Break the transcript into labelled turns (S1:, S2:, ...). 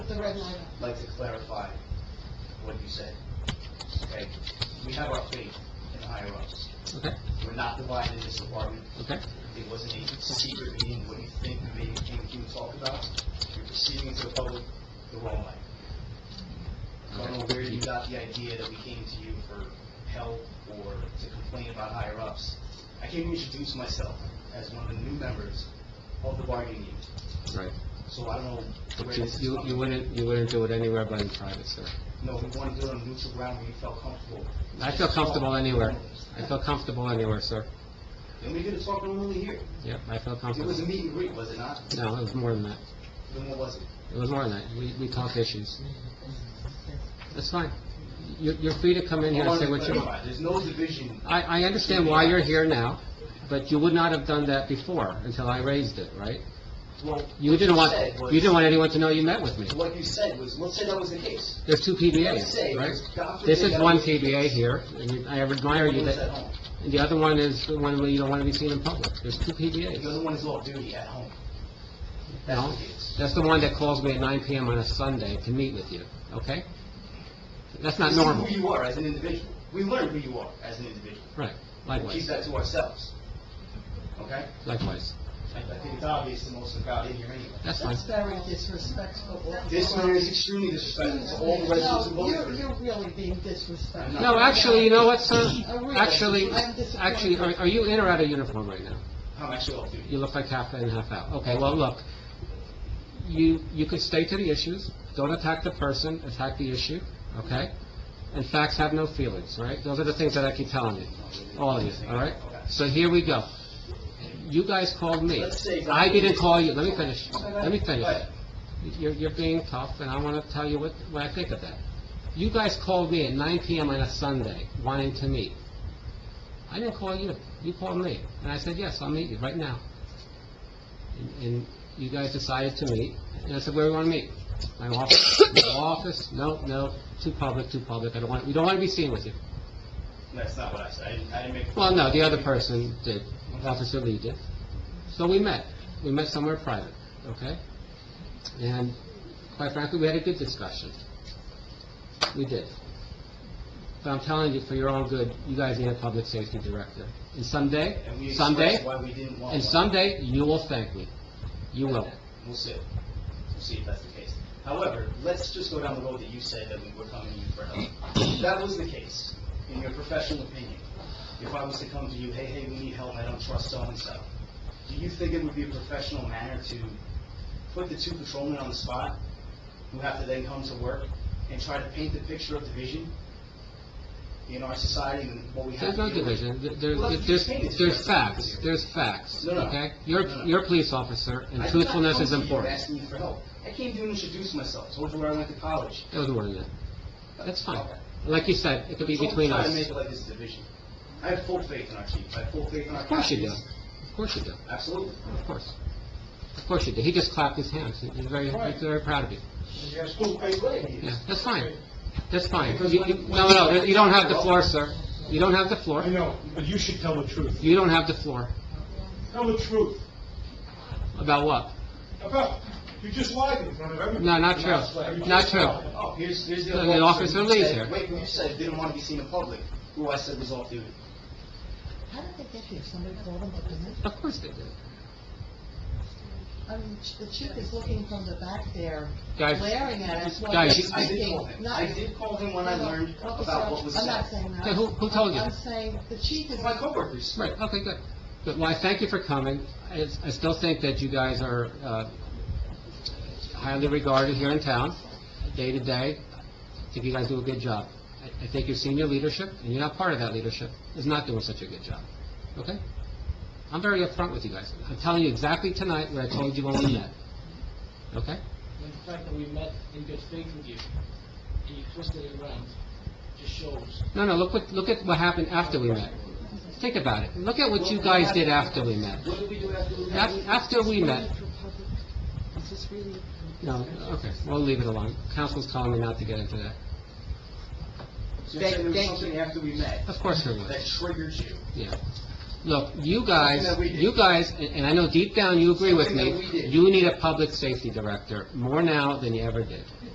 S1: red line.
S2: like to clarify what you said. Okay? We have our faith in higher ups.
S3: Okay,
S2: We're not divided in this department.
S3: okay.
S2: It wasn't a secret meeting, what you think the meeting came to talk about. You're proceeding into the public the wrong way. I don't know where you got the idea that we came to you for help or to complain about higher ups. I came to introduce myself as one of the new members of the bargaining unit.
S3: Right.
S2: So I don't know where
S3: But you,
S2: this is
S3: you-
S2: coming
S3: you wouldn't, you wouldn't do it anywhere but in private, sir.
S2: No, we want to do it on neutral ground where you felt comfortable.
S3: I feel comfortable anywhere. I feel comfortable anywhere, sir.
S2: And we did a talk normally here.
S3: Yep, I feel
S2: It
S3: comfortable.
S2: was a meet and greet, was it not?
S3: No, it was more than that.
S2: Then what was it?
S3: It was more than that. We, we talked issues. That's fine. You're, you're free to come in here and say what you want.
S2: There's no division.
S3: I, I understand why you're here now, but you would not have done that before until I raised it, right?
S2: Well,
S3: You
S2: what
S3: didn't
S2: said
S3: want,
S2: was-
S3: you didn't want anyone to know you met with me.
S2: What you said was, let's say that was the case.
S3: There's two PBAs, right? This is one PBA here, and I admire you
S2: Everyone's at
S3: that,
S2: home.
S3: the other one is the one where you don't want to be seen in public. There's two
S2: The
S3: PBAs.
S2: other one is off duty at home. That's
S3: No,
S2: what it is.
S3: that's the one that calls me at 9 PM on a Sunday to meet with you, okay? That's not
S2: This is
S3: normal.
S2: who you are as an individual. We learn who you are as an individual.
S3: Right,
S2: We keep
S3: likewise,
S2: that to ourselves. Okay?
S3: likewise.
S2: I I think it's obvious to most of the crowd in here anyway.
S3: That's fine.
S1: That's very disrespectful.
S2: This man is extremely disrespectful to all the residents who
S1: No,
S2: voted for
S1: you're,
S2: him.
S1: you're really being disrespectful.
S3: No, actually, you know what, sir?
S1: I realize-
S3: Actually,
S1: I'm disappointed.
S3: actually, are are you in or out of uniform right now?
S2: I'm actually off duty.
S3: You look like half in, half out. Okay, well, look, you, you could stay to the issues, don't attack the person, attack the issue, okay? And facts have no feelings, all right? Those are the things that I keep telling you, all of you, all right? So here we go. You guys called me.
S2: Let's see.
S3: I didn't call you, let me finish, let me finish.
S2: But
S3: You're, you're being tough, and I want to tell you what, what I think of that. You guys called me at 9 PM on a Sunday, wanting to meet. I didn't call you, you called me, and I said, yes, I'll meet you right now. And- And you guys decided to meet, and I said, where do you want to meet? My office, my office, no, no, too public, too public, I don't want, we don't want to be seen with you.
S2: That's not what I said. I didn't- I didn't make...
S3: Well, no, the other person did, Officer Lee did. So we met. We met somewhere private, okay? And quite frankly, we had a good discussion. We did. But I'm telling you, for your own good, you guys need a public safety director. And someday,
S2: And we expressed
S3: someday,
S2: why we didn't want one.
S3: and someday, you will thank me. You will.
S2: We'll see. We'll see if that's the case. However, let's just go down the road that you said that we were coming to you for help. If that was the case, in your professional opinion, if I was to come to you, hey, hey, we need help, I don't trust so-and-so, do you think it would be a professional manner to put the two patrolmen on the spot, who have to then come to work, and try to paint the picture of division in our society and what we have?
S3: There's no
S2: to deal with?
S3: division. There- there- There's, there's facts. There's facts,
S2: No, no.
S3: okay? You're,
S2: No, no.
S3: you're a police officer,
S2: I
S3: and
S2: did not
S3: truthfulness
S2: come
S3: is
S2: to you
S3: important.
S2: asking you for help. I came to introduce myself, told you where I went to college.
S3: That was one of them. That's fine.
S2: Okay.
S3: Like you said, it could be
S2: Don't
S3: between
S2: try
S3: us.
S2: to make it like this division. I have full faith in our chief, I have full faith in our...
S3: Of course you do.
S2: captains.
S3: Of course you do.
S2: Absolutely.
S3: Of course. Of course you do. He just clapped his hands. He- He's very, he's very proud of you.
S2: That's full faith in you.
S3: Yeah, that's fine. That's fine. You- you- No, no, no, you don't have the floor, sir. You don't have the floor.
S4: I know, but you should tell the truth.
S3: You don't have the floor.
S4: Tell the truth.
S3: About what?
S4: About, you just lied in front of everyone.
S3: No, not true. Not true.
S2: Oh, here's, here's the...
S3: No,
S2: other
S3: the
S2: officer
S3: officer
S2: who
S3: leaves
S2: said-
S3: here.
S2: Wait, who you said didn't want to be seen in public, who I said was off duty.
S1: How did they get here? Somebody called them to come in?
S3: Of course they do.
S1: I mean, the chief is looking from the back there,
S3: Guys,
S1: glaring at us while
S3: guys,
S1: he's
S2: I did
S1: speaking.
S2: call him.
S1: Not-
S2: I did call him when I learned about what was
S1: I'm not
S2: said.
S1: saying that.
S3: Okay, who- who told you?
S1: I'm saying the chief is...
S2: My coworkers.
S3: Right, okay, good. Good, well, I thank you for coming. I I still think that you guys are uh, highly regarded here in town, day to day. I think you guys do a good job. I I think your senior leadership, and you're not part of that leadership, is not doing such a good job, okay? I'm very upfront with you guys. I'm telling you exactly tonight what I told you when we met, okay?
S5: And the fact that we met in good faith with you, and you twisted it around, just shows.
S3: No, no, look what, look at what happened after we met. Think about it. Look at what you guys did after we met.
S2: What did we do after we
S3: Af-
S2: met?
S3: After we met, No, okay, we'll leave it alone. Council's telling me not to get into that.
S2: So you're saying there was
S1: Thank- thank
S2: something after we met
S3: Of course there was,
S2: that triggered you?
S3: yeah. Look, you guys,
S2: Something that we did.
S3: you guys, and and I know deep down you agree with
S2: Something that
S3: me,
S2: we did.
S3: you need a public safety director, more now than you ever did.